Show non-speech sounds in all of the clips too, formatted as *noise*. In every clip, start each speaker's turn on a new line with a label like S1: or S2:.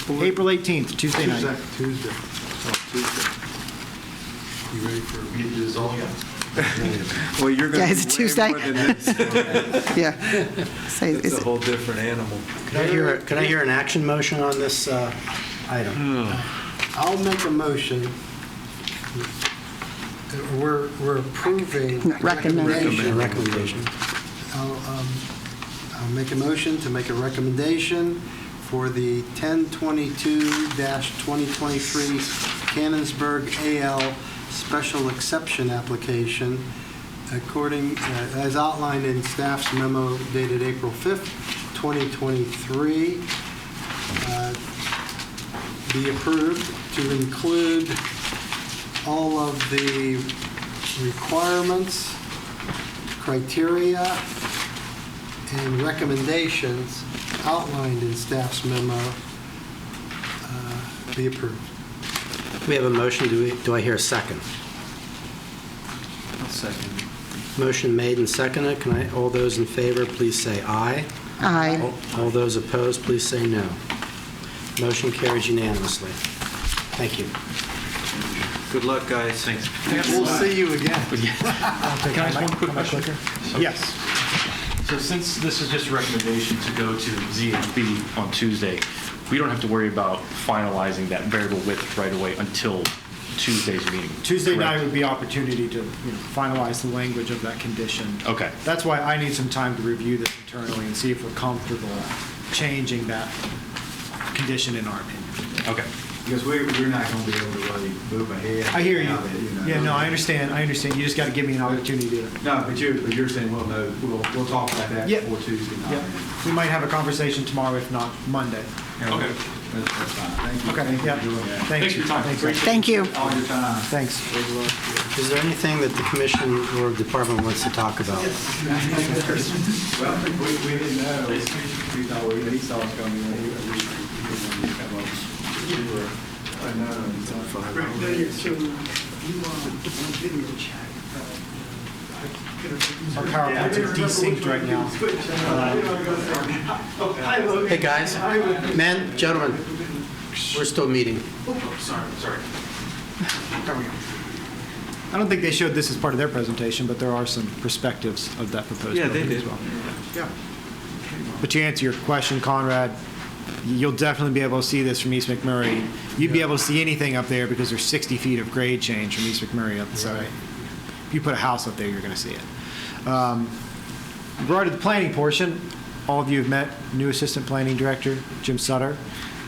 S1: report?
S2: April 18th, Tuesday night.
S1: Tuesday. Oh, Tuesday. You ready for me to dissolve?
S3: Well, you're going
S4: Yeah,
S3: to
S4: is it Tuesday?
S3: more than
S4: *laughs*
S3: this.
S4: Yeah. Say, is
S3: It's a
S4: it-
S3: whole different animal.
S5: Could I hear, could I hear an action motion on this uh, item?
S1: I'll make a motion. that We're, we're approving.
S4: No, recommend.
S5: A
S1: recommendation.
S5: recommendation.
S1: I'll, um, I'll make a motion to make a recommendation for the 1022-2023 Cannonsburg AL Special Exception Application according, uh, as outlined in staff's memo dated April 5th, 2023, uh, be approved to include all of the requirements criteria and recommendations outlined in staff's memo uh, be approved.
S5: We have a motion, do we, do I hear a second?
S3: I'll second.
S5: Motion made and seconded, can I, all those in favor, please say aye.
S4: Aye.
S5: All all those opposed, please say no. Motion carries unanimously. Thank you.
S3: Good luck, guys. Thanks.
S1: We'll see you again.
S6: Can I ask one quick question?
S2: Yes.
S6: So since this is just a recommendation to go to ZHB on Tuesday, we don't have to worry about finalizing that variable width right away until Tuesday's meeting.
S2: Tuesday night
S6: correct?
S2: would be opportunity to you know, finalize the language of that condition.
S6: Okay.
S2: That's why I need some time to review this internally and see if we're comfortable changing that condition in our opinion.
S6: Okay.
S7: Because we, we're not gonna be able to really move ahead.
S2: I hear you.
S7: without it, know.
S2: Yeah, no, I understand, I understand. You just got to give me an opportunity to,
S7: No, but you're, but you're saying, well, no, we'll, we'll talk about that
S2: Yeah.
S7: before Tuesday night.
S2: yeah. We might have a conversation tomorrow, if not Monday.
S7: Yeah,
S6: Okay.
S7: That's, that's fine. Thank you.
S2: Okay,
S7: Thank you
S2: yeah.
S7: for doing that.
S2: Thanks.
S6: Thanks for your time.
S2: Thanks.
S4: Thank you.
S7: All
S2: *laughs*
S7: your time.
S2: Thanks.
S5: Is there anything that the commission or department wants to talk about?
S7: Well, we, we didn't know. We thought, we, he saw us coming, and he, we, we wanted to come up. We were unknown, so.
S2: Our PowerPoints are desynced right now.
S5: Um, Hey, guys, men, gentlemen, we're still meeting.
S2: I don't think they showed this as part of their presentation, but there are some perspectives of that proposed
S3: Yeah, they
S2: building as
S3: did.
S2: well. But to answer your question, Conrad, you'll definitely be able to see this from East McMurray. You'd be able to see anything up there because there's 60 feet of grade change from East McMurray up, so if you put a house up there, you're going to see it. Um, Regarding the planning portion, all of you have met new Assistant Planning Director, Jim Sutter.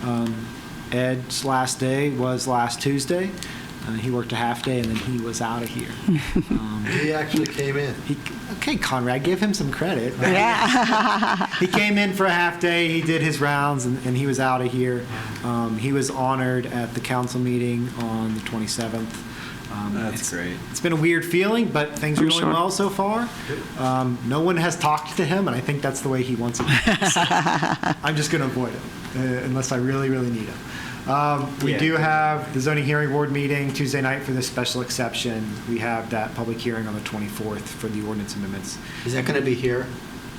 S2: Um, Ed's last day was last Tuesday. Uh, He worked a half day, and then he was out of here. Um,
S1: He actually came in.
S2: he- Okay, Conrad, give him some credit.
S4: Yeah.
S2: He came in for a half day. He did his rounds, and, and he was out of here. Um, he was honored at the council meeting on the 27th. Um,
S3: That's
S2: it's-
S3: great.
S2: It's been a weird feeling, but things are
S4: I'm
S2: going
S4: sure.
S2: well so far. Um, no one has talked to him, and I think that's the way he wants it. So, I'm just going to avoid it uh, unless I really, really need him. Um, we
S3: Yeah.
S2: do have the zoning hearing board meeting Tuesday night for the special exception. We have that public hearing on the 24th for the ordinance amendments.
S5: Is that going to be here,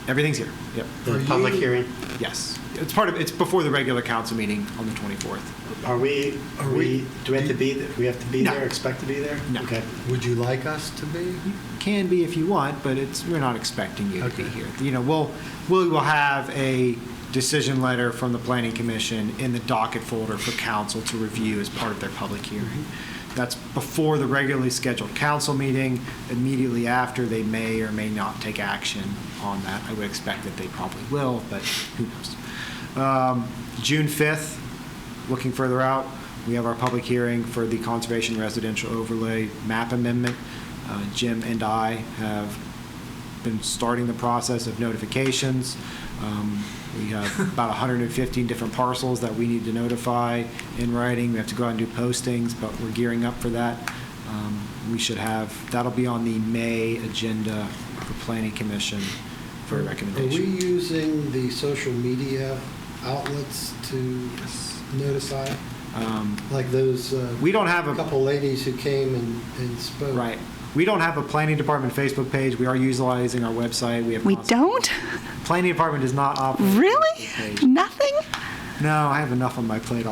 S2: Everything's here. Yep.
S5: the public hearing?
S2: Yes, it's part of, it's before the regular council meeting on the 24th.
S5: Are we, are we, do we have to be, th- we have to be
S2: No.
S5: there, expect to be there?
S2: No.
S5: Okay.
S1: Would you like us to be?
S2: Can be if you want, but it's, we're not expecting you to be
S1: Okay.
S2: here. You know, we'll, we will have a decision letter from the planning commission in the docket folder for council to review as part of their public hearing.
S5: Mm-hmm.
S2: That's before the regularly scheduled council meeting. Immediately after, they may or may not take action on that. I would expect that they probably will, but who knows? Um, June 5th, Looking further out, we have our public hearing for the Conservation Residential Overlay Map Amendment. Uh, Jim and I have been starting the process of notifications. Um, We have
S1: *laughs*
S2: about 115 different parcels that we need to notify in writing. We have to go out and do postings, but we're gearing up for that. Um, We should have, that'll be on the May agenda for Planning Commission for a
S1: Are we
S2: recommendation.
S1: using the social media outlets to notify?
S2: Um,
S1: Like those, uh,
S2: We don't have a.
S1: couple ladies who came and and spoke.
S2: Right. We don't have a planning department Facebook page. We are utilizing our website. We have.
S4: We
S2: constant-
S4: don't?
S2: Planning department does not operate. a
S4: Really?
S2: Facebook page.
S4: Nothing?
S2: No, I have enough on my plate